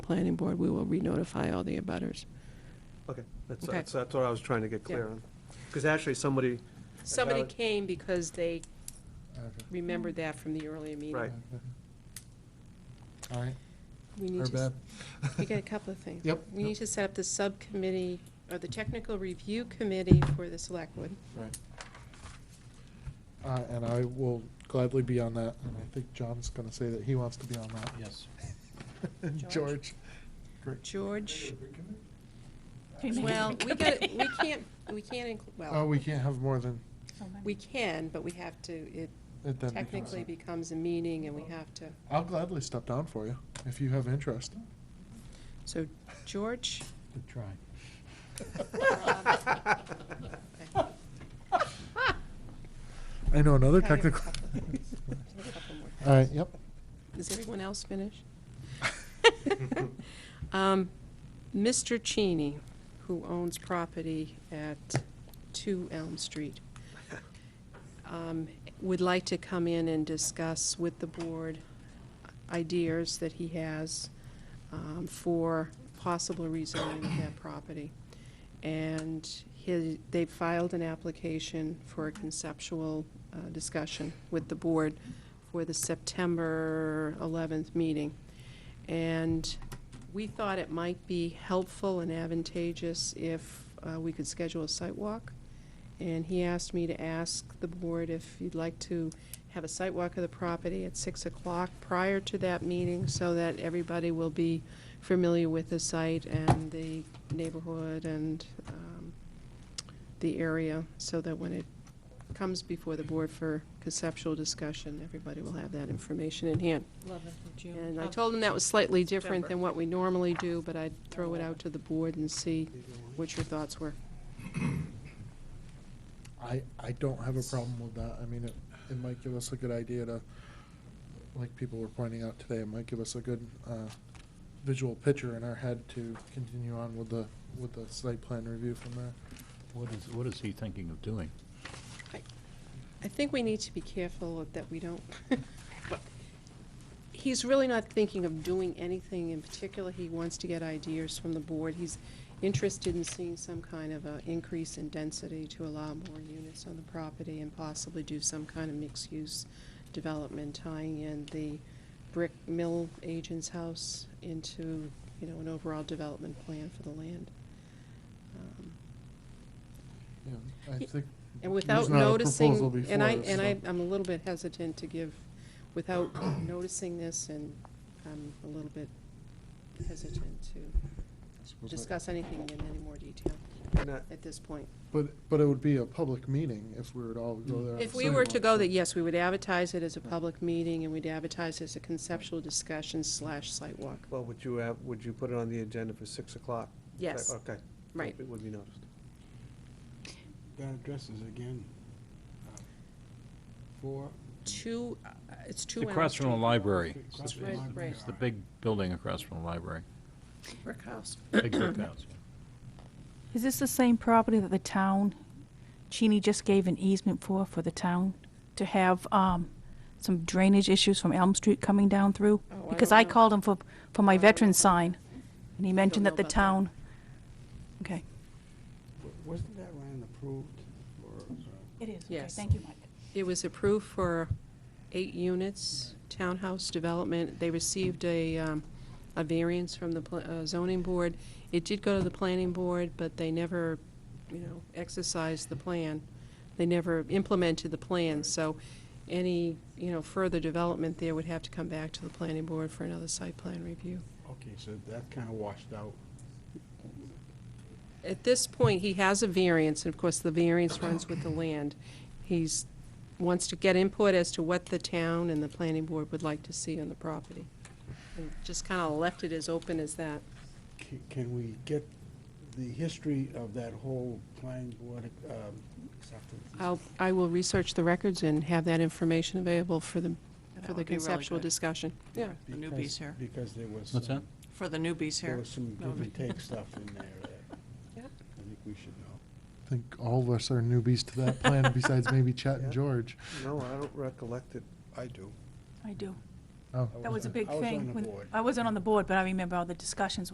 planning board, we will re-notify all the abutters. Okay, that's, Okay. that's, that's what I was trying to get clear Yeah. on. Because actually, somebody, Somebody Valid. came because they Okay. remembered that from the earlier meeting. Right. All right, We need her to, bad. s- we got a couple of things. Yep, We yep. need to set up the subcommittee, or the technical review committee for the selectwood. Right. Uh, and I will gladly be on that, and I think John's gonna say that he wants to be on that. Yes. And George? George, great. George, Can you make well, it we got, okay? we can't, we can't, inclu- Oh, well, we can't have more than, So many. we can, but we have to, it it then becomes. technically becomes a meeting and we have to. I'll gladly step down for you, if you have interest. So George, Good try. I know another I have a technical. couple. there's a couple more. All right, yep. Is everyone else finished? Um, Mr. Cheney, who owns property at 2 Elm Street, um, would like to come in and discuss with the board ideas that he has um, for possible rezoning of that property. And he, they filed an application for a conceptual uh, discussion with the board for the September 11th meeting. And we thought it might be helpful and advantageous if uh, we could schedule a site walk. And he asked me to ask the board if you'd like to have a site walk of the property at 6 o'clock prior to that meeting so that everybody will be familiar with the site and the neighborhood and um, the area, so that when it comes before the board for conceptual discussion, everybody will have that information in hand. 11th of June. And I Oh, told him that was slightly different September. than what we normally do, but I'd throw it out to the board and see what your thoughts were. I, I don't have a problem with that. I mean, it, it might give us a good idea to, like people were pointing out today, it might give us a good, uh, visual picture in our head to continue on with the, with the site plan review from there. What is, what is he thinking of doing? I think we need to be careful that we don't, he's really not thinking of doing anything in particular. He wants to get ideas from the board. He's interested in seeing some kind of a increase in density to allow more units on the property and possibly do some kind of mixed-use development, tying in the brick mill agent's house into, you know, an overall development plan for the land. Um, Yeah, I Ye- think. and without there's not a proposal noticing, before and I, us, and I, so- I'm a little bit hesitant to give, without noticing this, and I'm a little bit hesitant to discuss anything in any more detail and that- at this point. But, but it would be a public meeting if we were to all go there. at If the we same were to time. go, that, yes, we would advertise it as a public meeting, and we'd advertise it as a conceptual discussion slash site walk. well, would you have, would you put it on the agenda for 6 o'clock? Yes, Okay. right. It would be noticed. That addresses again, uh, four. Two, uh, it's two It's hours. across from the library. Across from the Right, library. right. It's the big building across from the library. Brick house. Big brick house. Is this the same property that the town, Cheney just gave an easement for, for the town? To have um, some drainage issues from Elm Street coming down through? Oh, I Because don't I know. called him for, for I my don't know veteran about that. sign, and he mentioned know that the about that. town, okay. W- Wasn't that land approved for, uh, It is, okay, Yes. thank thank you, Mike. It was approved for eight units, townhouse development. They received a, um, a variance from the pla- uh, zoning board. It did go to the planning board, but they never, you know, exercised the plan. They never implemented the plan, so any, you know, further development there would have to come back to the planning board for another site plan review. okay, so that kind of washed out. At this point, he has a variance, and of course, the variance runs with the land. He's, wants to get input as to what the town and the planning board would like to see on the property. And just kind of left it as open as that. C- Can we get the history of that whole planning board um, acceptance? I'll, I will research the records and have that information available for the, That for the would be really conceptual good. discussion. Yeah, The Because- newbies here. Because there was. What's some- For the newbies There here. was some No, give and but- take stuff in there that Yeah. I think we should know. I think all of us are newbies to that plan, besides maybe Chet Yeah. and George. No, I don't recollect it. I do. I do. Oh. I That was a on- big I was on thing. the when- board. I wasn't on the board, but I remember all the discussions